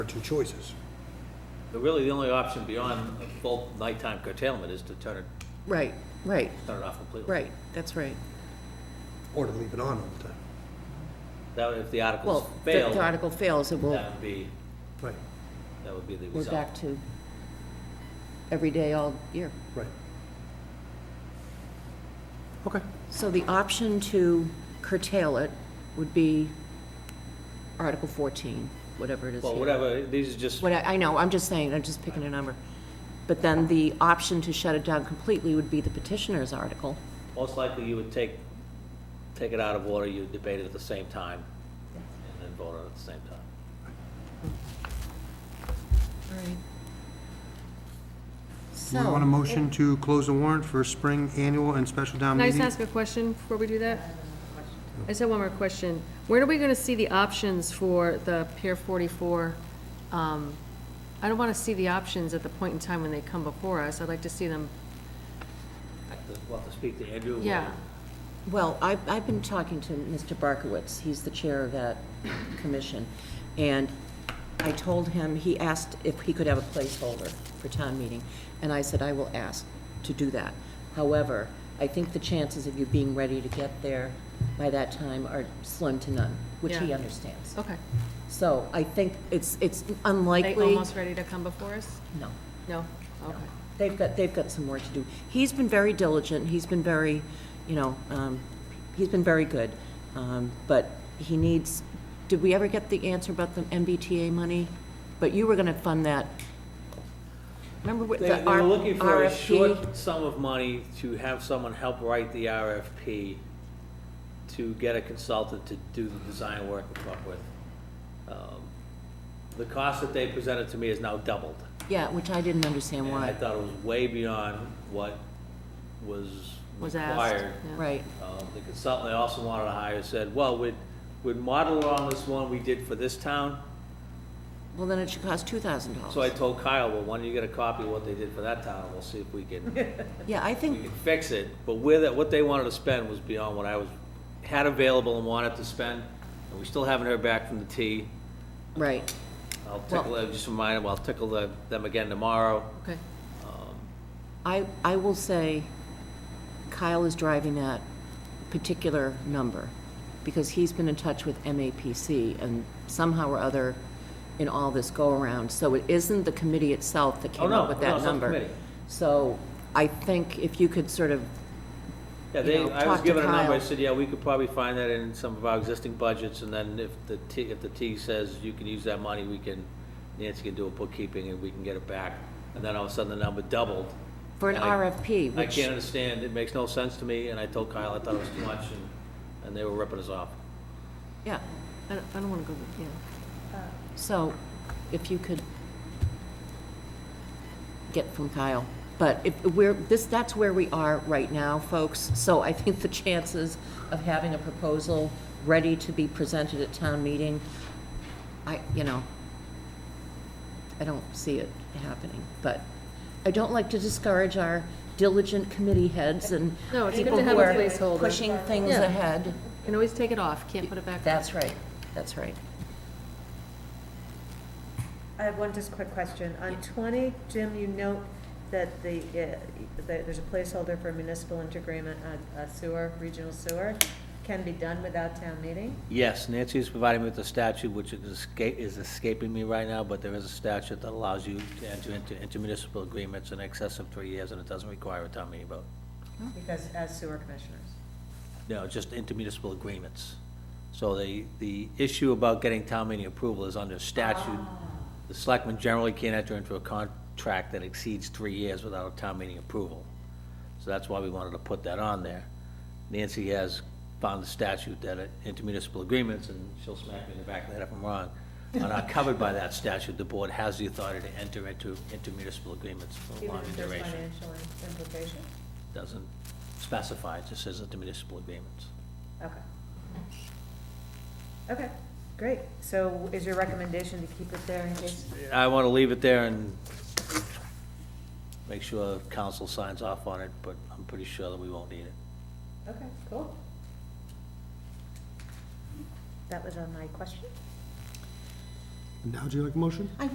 Our two choices. But Really, the only option beyond a full nighttime curtailment is to turn it, Right, right, turn it off completely. right, that's right. Or to leave it on all the time. That, if the Well, articles if the- fail, the that article fails, it will, would be, Right, that would be the we're result. back to every day all year. right. Okay. So the option to curtail it would be Article 14, whatever it is Well, here. whatever, these are just, What, I I know, I'm just saying, I'm just picking a number. But then the option to shut it down completely would be the petitioner's article. most likely you would take, take it out of order, you debate it at the same time, and then vote on it at the same time. All right. Do we want a So, motion to close the warrant for spring annual and special town Can I meeting? just ask a question before we do that? I just have one more question. Where are we gonna see the options for the Pier 44? um, I don't wanna see the options at the point in time when they come before us. I'd like to see them, We'll have to speak to Andrew. we'll- yeah. well, I- I've been talking to Mr. Barkowitz, he's the chair of that commission, and I told him, he asked if he could have a placeholder for town meeting, and I said, I will ask to do that. However, I think the chances of you being ready to get there by that time are slim to none, which he Yeah. understands. Okay. So I think it's, it's They unlikely. almost ready to come before us? No. No? Okay. They've got, they've got some work to do. He's been very diligent, he's been very, you know, um, he's been very good, um, but he needs, did we ever get the answer about the MBTA money? But you were gonna fund that, remember with They, the they R- were looking for a RFP? short sum of money to have someone help write the RFP to get a consultant to do the design work and come up with. Um, The cost that they presented to me is now doubled. Yeah, which I didn't understand And I why, thought it was way beyond what was Was asked. required. yeah. right, Um, The consultant they also wanted to hire said, well, we'd, we'd model it on this one we did for this town. well, then it should cost two thousand dollars. So I told Kyle, well, why don't you get a copy of what they did for that town, and we'll see if we can Yeah, I we think, could fix it, but with it, what they wanted to spend was beyond what I was, had available and wanted to spend, and we still haven't heard back from the T. right, I'll tickle, them- just remind them, I'll tickle the- them again tomorrow. Okay. I, I will say Kyle is driving that particular number because he's been in touch with MAPC and somehow or other in all this go-around. So it isn't the committee itself that Oh, came no, up with no, that it's not the number. committee. So I think if you could sort of, Yeah, You they, know, I talk was to given a number, I Kyle. said, yeah, we could probably find that in some of our existing budgets, and then if the T, if the T says you can use that money, we can, Nancy can do a bookkeeping and we can get it back, and then all of a sudden the number doubled. for an And I- RFP, I which, can't understand, it makes no sense to me, and I told Kyle I thought it was too much, and, and they were ripping us off. yeah. I don't, I don't wanna go, yeah. So if you could get from Kyle. But if we're, this, that's where we are right now, folks. So I think the chances of having a proposal ready to be presented at town meeting, I, you know, I don't see it happening. But I don't like to discourage our diligent committee heads and No, it's good people to have who a are placeholder. pushing things Yeah. ahead. Can always take it off, can't put it back on. That's right, that's right. I have one just quick question. On twenty, Jim, you note that the, uh, that there's a placeholder for municipal interagreement on a sewer, regional sewer, can be done without town meeting? Yes, Nancy is providing me with a statute which is esca- is escaping me right now, but there is a statute that allows you to enter into intermunicipal agreements in excess of three years, and it doesn't require a town meeting vote. Because as sewer commissioners. No, just intermunicipal agreements. So the, the issue about getting town meeting approval is under statute. Ah. The selectmen generally can't enter into a contract that exceeds three years without a town meeting approval. So that's why we wanted to put that on there. Nancy has found the statute that it- intermunicipal agreements, and she'll smack me in the back of the head if I'm wrong, are not covered by that statute. The board has the authority to enter into intermunicipal agreements for Even longer if there's duration. financial implications? Doesn't specify, it just says intermunicipal agreements. Okay. Okay, great. So is your recommendation to keep it there in case? I want to leave it there and make sure council signs off on it, but I'm pretty sure that we won't need it. Okay, cool. That was on my question. Now, do you like a motion?